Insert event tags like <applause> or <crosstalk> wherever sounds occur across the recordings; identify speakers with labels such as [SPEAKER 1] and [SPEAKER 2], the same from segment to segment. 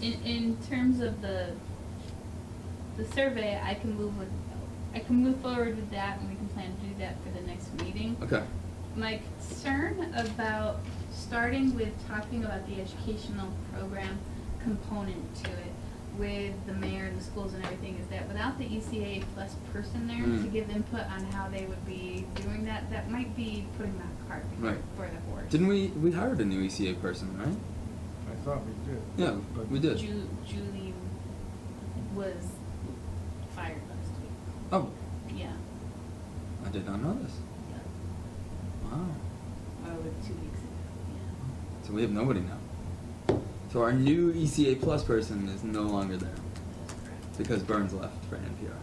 [SPEAKER 1] in, in terms of the, the survey, I can move with, I can move forward with that and we can plan to do that for the next meeting.
[SPEAKER 2] Okay.
[SPEAKER 1] My concern about starting with talking about the educational program component to it with the mayor and the schools and everything is that without the ECA plus person there to
[SPEAKER 2] Mm.
[SPEAKER 1] give input on how they would be doing that, that might be putting that cart
[SPEAKER 2] Right.
[SPEAKER 1] before the horse.
[SPEAKER 2] Didn't we we hired a new ECA person, right?
[SPEAKER 3] I thought we did.
[SPEAKER 2] Yeah,
[SPEAKER 3] but-
[SPEAKER 2] we did.
[SPEAKER 1] Ju- Julie was fired last
[SPEAKER 2] Oh,
[SPEAKER 1] week. Yeah.
[SPEAKER 2] I did not know this.
[SPEAKER 1] yeah.
[SPEAKER 2] Wow.
[SPEAKER 1] Or like two weeks ago.
[SPEAKER 2] So we have nobody now. So our new ECA plus person is no longer there
[SPEAKER 1] Yeah. That's correct.
[SPEAKER 2] because Burns left for NPR.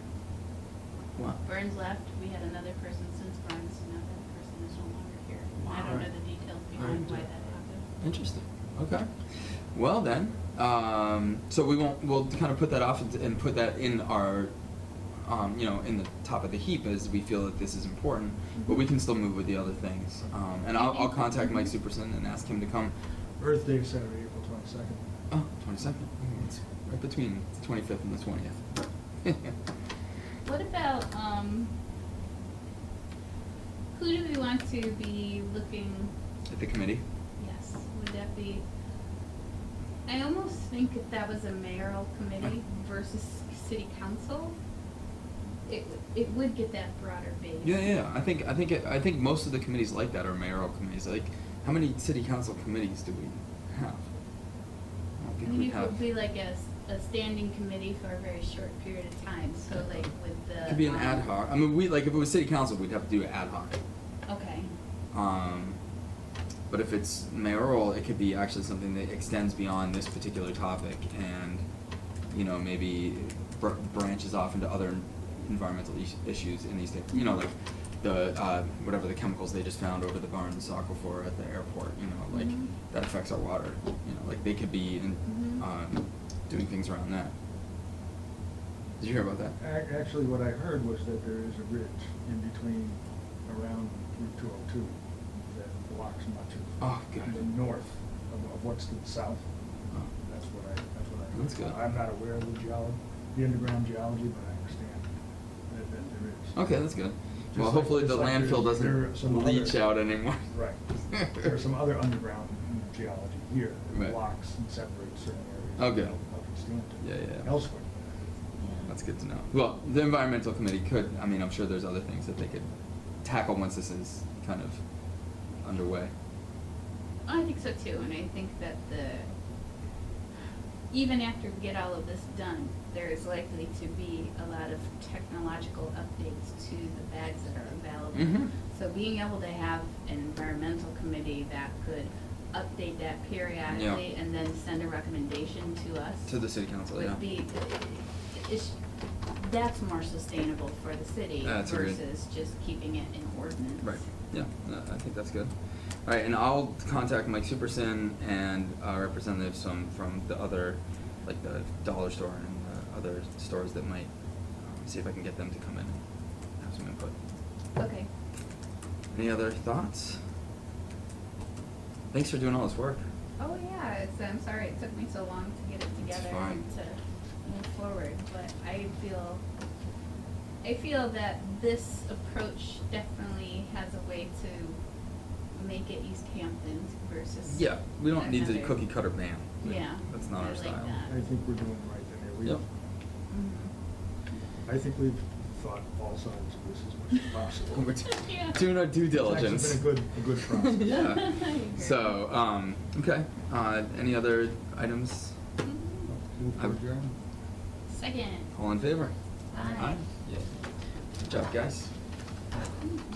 [SPEAKER 2] Wow.
[SPEAKER 1] Burns left. We had another person since Burns. Now that person is no longer here. I don't know
[SPEAKER 2] Wow.
[SPEAKER 1] the details behind why that happened.
[SPEAKER 2] Interesting. Okay. Well then, um, so we won't. We'll kind of put that off and, and put that in our, um, you know, in the top of the heap as we feel that this is important. But we can still move with the other things. Um, and I'll, I'll contact Mike Superson and ask him to come.
[SPEAKER 3] Earth Day is Saturday, April twenty-second.
[SPEAKER 2] Oh, 22nd. It's right between the 25th and the <laughs> 20th.
[SPEAKER 1] What about um? Who do we want to be looking
[SPEAKER 2] At the committee.
[SPEAKER 1] Yes, would that be? I almost think if that was a mayoral committee versus city council, it, w- it would get that broader base.
[SPEAKER 2] Yeah, yeah. yeah. I think I think it, I think most of the committees like that are mayoral committees. Like, how many city council committees do we have? I don't
[SPEAKER 1] I
[SPEAKER 2] think we
[SPEAKER 1] mean, it
[SPEAKER 2] have.
[SPEAKER 1] would be like a, s- a standing committee for a very short period of time, so like with the.
[SPEAKER 2] It could be an
[SPEAKER 1] um,
[SPEAKER 2] ad hoc. I mean, we like if it was city council, we'd have to do it ad hoc.
[SPEAKER 1] Okay,
[SPEAKER 2] Um, but if it's mayoral, it could be actually something that extends beyond this particular topic, and you know maybe br- branches off into other environmental is- issues in these days. You know, like the uh, whatever the chemicals they just found over the Barnes aquifer at the airport. You know, like
[SPEAKER 1] Mhm.
[SPEAKER 2] that affects our water. You know, like they could be in,
[SPEAKER 1] Mhm.
[SPEAKER 2] um, doing things around that. Did you hear about that?
[SPEAKER 3] Ac- Actually, what I heard was that there is a ridge in between around Route two oh two that blocks much of.
[SPEAKER 2] Oh, God.
[SPEAKER 3] The north of, of what's to the south.
[SPEAKER 2] Oh.
[SPEAKER 3] That's what I, that's what I heard.
[SPEAKER 2] That's good.
[SPEAKER 3] I'm not aware of the geology, the underground geology, but I understand that, that there is.
[SPEAKER 2] Okay, that's good.
[SPEAKER 3] Just
[SPEAKER 2] Well,
[SPEAKER 3] like-
[SPEAKER 2] hopefully the
[SPEAKER 3] just like
[SPEAKER 2] landfill
[SPEAKER 3] there's- there are
[SPEAKER 2] doesn't
[SPEAKER 3] some
[SPEAKER 2] leach out
[SPEAKER 3] other-
[SPEAKER 2] anymore. <laughs>
[SPEAKER 3] Right. There's some other underground geology here
[SPEAKER 2] Right.
[SPEAKER 3] that blocks and separates certain areas.
[SPEAKER 2] Okay.
[SPEAKER 3] of- Of East
[SPEAKER 2] Yeah, yeah,
[SPEAKER 3] Hampton,
[SPEAKER 2] yeah.
[SPEAKER 3] elsewhere.
[SPEAKER 2] That's good to know. Well, the environmental committee could, I mean, I'm sure there's other things that they could tackle once this is kind of underway.
[SPEAKER 1] I think so too, and I think that the, even after we get all of this done, there is likely to be a lot of technological updates to the bags that are available.
[SPEAKER 2] Mhm.
[SPEAKER 1] So being able to have an environmental committee that could update that periodically and then send a recommendation to us
[SPEAKER 2] To the city council, yeah.
[SPEAKER 1] would be, it's, that's more sustainable for the city
[SPEAKER 2] That's a good-
[SPEAKER 1] versus just keeping it in ordinance.
[SPEAKER 2] Right, yeah, no, I think that's good. All right, and I'll contact Mike Superson and uh, representatives from, from the other, like the dollar store and the other stores that might, um, see if I can get them to come in and have some input.
[SPEAKER 1] Okay.
[SPEAKER 2] Any other thoughts? Thanks for doing all this work.
[SPEAKER 1] Oh yeah, it's, I'm sorry it took me so long to get it
[SPEAKER 2] It's
[SPEAKER 1] together
[SPEAKER 2] fine.
[SPEAKER 1] and to move forward, but I feel, I feel that this approach definitely has a way to make it East Hampton versus.
[SPEAKER 2] Yeah, we don't need the
[SPEAKER 1] another-
[SPEAKER 2] cookie cutter ban.
[SPEAKER 1] Yeah,
[SPEAKER 2] That's not
[SPEAKER 1] I
[SPEAKER 2] our
[SPEAKER 1] like
[SPEAKER 2] style.
[SPEAKER 1] that.
[SPEAKER 3] I think we're doing right in there. We-
[SPEAKER 2] Yep.
[SPEAKER 1] Mhm.
[SPEAKER 3] I think we've thought all sides of this as much as possible.
[SPEAKER 2] <laughs> We're t-
[SPEAKER 1] <laughs> Yeah.
[SPEAKER 2] doing our <laughs> due diligence.
[SPEAKER 3] It's actually been a good, a good process.
[SPEAKER 2] <laughs> yeah.
[SPEAKER 1] <laughs> I agree.
[SPEAKER 2] So, um, okay. Uh, any other items?
[SPEAKER 1] Mhm.
[SPEAKER 3] Move to adjourn.
[SPEAKER 1] Second.
[SPEAKER 2] All in favor?
[SPEAKER 1] Aye.
[SPEAKER 2] Yeah. Good job, guys.